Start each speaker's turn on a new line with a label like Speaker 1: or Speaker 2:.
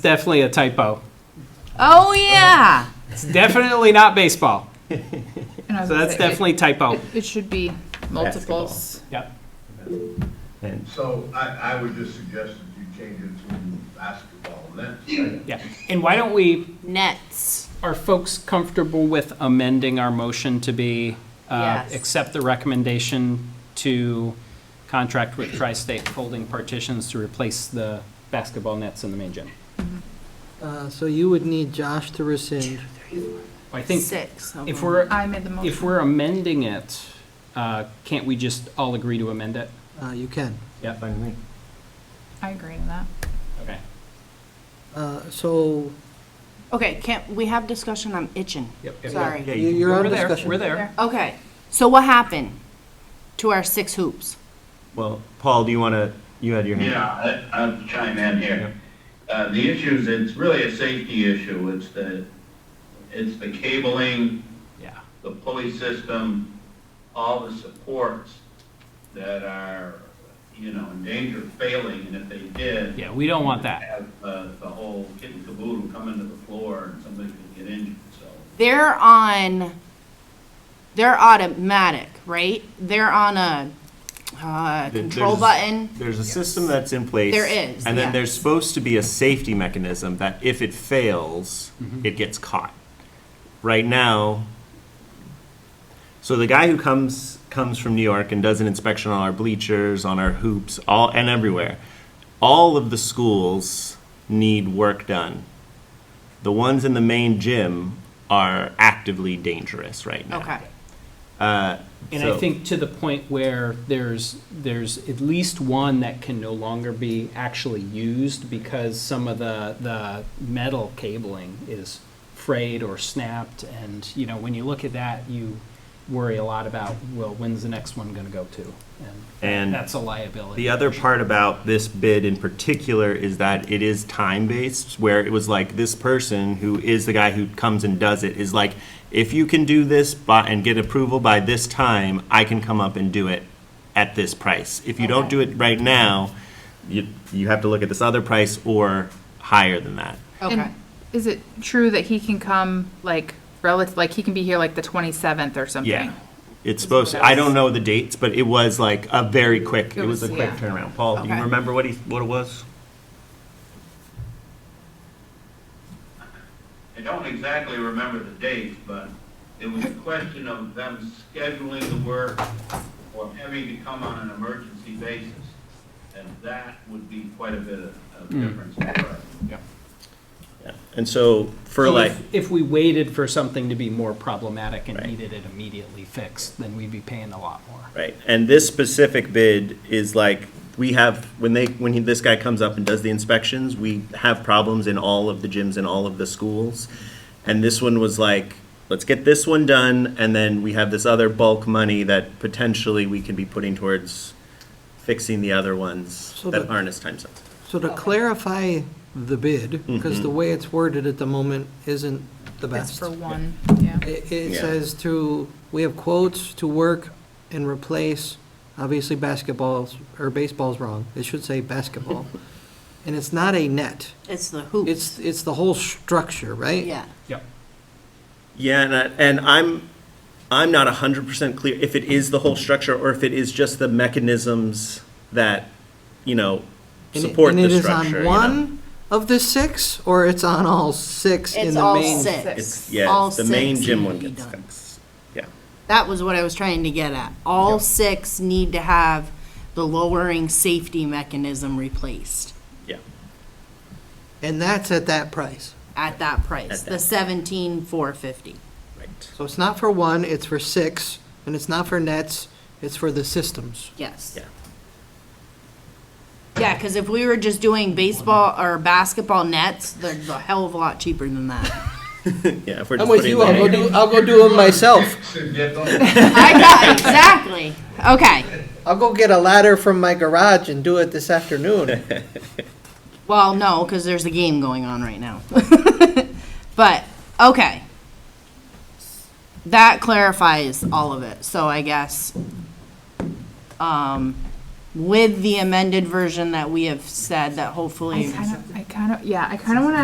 Speaker 1: Definitely a typo.
Speaker 2: Oh, yeah.
Speaker 1: It's definitely not baseball.
Speaker 2: And I was
Speaker 1: So
Speaker 2: gonna
Speaker 1: that's
Speaker 2: say, it-
Speaker 1: definitely typo.
Speaker 2: It it should be multiples.
Speaker 1: Yep.
Speaker 3: And
Speaker 4: So I, I would just suggest that you change it to basketball nets.
Speaker 1: Yeah. And why don't we,
Speaker 2: Nets.
Speaker 1: are folks comfortable with amending our motion to be, uh,
Speaker 2: Yes.
Speaker 1: accept the recommendation to contract with Tri-State Folding Partitions to replace the basketball nets in the main gym?
Speaker 5: Uh, So you would need Josh to rescind.
Speaker 1: I think
Speaker 2: Six. of
Speaker 1: if
Speaker 2: them.
Speaker 1: we're-
Speaker 2: I made the motion.
Speaker 1: if we're amending it, uh, can't we just all agree to amend it?
Speaker 5: Uh, You can.
Speaker 3: fine with me.
Speaker 2: I agree with that.
Speaker 1: Okay.
Speaker 5: Uh, So
Speaker 6: Okay, can't, we have discussion, I'm itching.
Speaker 1: Yep, yep, yep.
Speaker 6: Sorry.
Speaker 3: Yeah,
Speaker 5: you-
Speaker 3: you-
Speaker 5: you're on
Speaker 1: We're there,
Speaker 5: discussion.
Speaker 1: We're there.
Speaker 6: Okay, so what happened to our six hoops?
Speaker 3: Well, Paul, do you want to, you had your hand.
Speaker 4: Yeah, I, I'll chime in here. Uh, the issue is, it's really a safety issue, it's the, it's the cabling,
Speaker 1: Yeah.
Speaker 4: the pulley system, all the supports that are, you know, in danger of failing, and if they did,
Speaker 1: Yeah, we don't want that.
Speaker 4: have, uh, the whole kit and caboodle come into the floor and somebody could get injured, so.
Speaker 6: They're on, they're automatic, right? They're on a, uh,
Speaker 3: Th-
Speaker 6: control
Speaker 3: there's-
Speaker 6: button.
Speaker 3: There's a system that's in place.
Speaker 6: There is,
Speaker 3: And then
Speaker 6: yeah.
Speaker 3: there's supposed to be a safety mechanism that if it fails,
Speaker 1: Mm-hmm.
Speaker 3: it gets caught. Right now, so the guy who comes, comes from New York and does an inspection on our bleachers, on our hoops, all, and everywhere, all of the schools need work done. The ones in the main gym are actively dangerous right now.
Speaker 6: Okay,
Speaker 1: And I
Speaker 3: So-
Speaker 1: think to the point where there's, there's at least one that can no longer be actually used because some of the, the metal cabling is frayed or snapped. And, you know, when you look at that, you worry a lot about, well, when's the next one going to go to?
Speaker 3: And
Speaker 1: That's a liability.
Speaker 3: The other part about this bid in particular is that it is time-based, where it was like, this person who is the guy who comes and does it is like, if you can do this by, and get approval by this time, I can come up and do it at this price. If you don't do it right now, you, you have to look at this other price or higher than that.
Speaker 6: okay.
Speaker 2: And Is it true that he can come, like, relative, like, he can be here like the 27th or something?
Speaker 3: Yeah. It's supposed, to I don't know the dates, but it was like a very quick, it was a
Speaker 2: was-
Speaker 3: quick
Speaker 2: yeah.
Speaker 3: turnaround. Paul, do you
Speaker 6: Okay.
Speaker 3: remember what he, what it was?
Speaker 4: I don't exactly remember the date, but it was a question of them scheduling the work or having to come on an emergency basis. And that would be quite a bit of of difference for us.
Speaker 3: And so for
Speaker 1: So
Speaker 3: like.
Speaker 1: if- If we waited for something to be more problematic and
Speaker 3: Right.
Speaker 1: needed it immediately fixed, then we'd be paying a lot more.
Speaker 3: Right, and this specific bid is like, we have, when they, when he- this guy comes up and does the inspections, we have problems in all of the gyms and all of the schools. And this one was like, let's get this one done, and then we have this other bulk money that potentially we can be putting towards fixing the other ones
Speaker 5: So
Speaker 3: that
Speaker 5: the-
Speaker 3: aren't as time sensitive.
Speaker 5: So to clarify the bid, because
Speaker 1: Mm-hmm.
Speaker 5: the way it's worded at the moment isn't the
Speaker 2: That's
Speaker 5: best.
Speaker 2: for one, yeah.
Speaker 5: It it
Speaker 3: Yeah.
Speaker 5: says to, we have quotes to work and replace, obviously basketballs, or baseball's wrong, it should say basketball. And it's not a net,
Speaker 6: It's the hoops,
Speaker 5: it's, it's the whole structure, right?
Speaker 6: yeah.
Speaker 1: Yep.
Speaker 3: Yeah, and, I, and I'm, I'm not hundred percent clear if it is the whole structure or if it is just the mechanisms that, you know,
Speaker 5: And it-
Speaker 3: support the
Speaker 5: And it
Speaker 3: structure.
Speaker 5: is on
Speaker 3: you know?
Speaker 5: one of the six, or it's on all six in
Speaker 6: It's
Speaker 5: the
Speaker 6: all
Speaker 5: main?
Speaker 6: six.
Speaker 3: It's, yeah,
Speaker 6: All
Speaker 3: it's the main
Speaker 6: six
Speaker 3: gym
Speaker 6: need
Speaker 3: one
Speaker 6: to be
Speaker 3: gets
Speaker 6: done.
Speaker 3: fixed. Yeah.
Speaker 6: That was what I was trying to get at. All six need to have the lowering safety mechanism replaced
Speaker 3: Yeah.
Speaker 5: And that's at that price.
Speaker 6: at that price,
Speaker 3: At
Speaker 6: the
Speaker 3: that.
Speaker 6: seventeen four fifty.
Speaker 3: Right.
Speaker 5: So it's not for one, it's for six, and it's not for nets, it's for the systems.
Speaker 6: Yes.
Speaker 3: Yeah.
Speaker 6: Yeah, because if we were just doing baseball or basketball nets, they're a hell of a lot cheaper than that.
Speaker 3: Yeah. If we're
Speaker 5: I'm
Speaker 3: just
Speaker 5: with
Speaker 3: putting
Speaker 5: you,
Speaker 3: the-
Speaker 5: I'll go do, I'll go do them myself.
Speaker 4: Should get those.
Speaker 6: I got, exactly. Okay.
Speaker 5: I'll go get a ladder from my garage and do it this afternoon.
Speaker 6: Well, no, because there's a game going on right now. but, okay. That clarifies all of it. So I guess um, with the amended version that we have said that
Speaker 2: I
Speaker 6: hopefully.
Speaker 2: kind of, I kind of, yeah, I kind of want to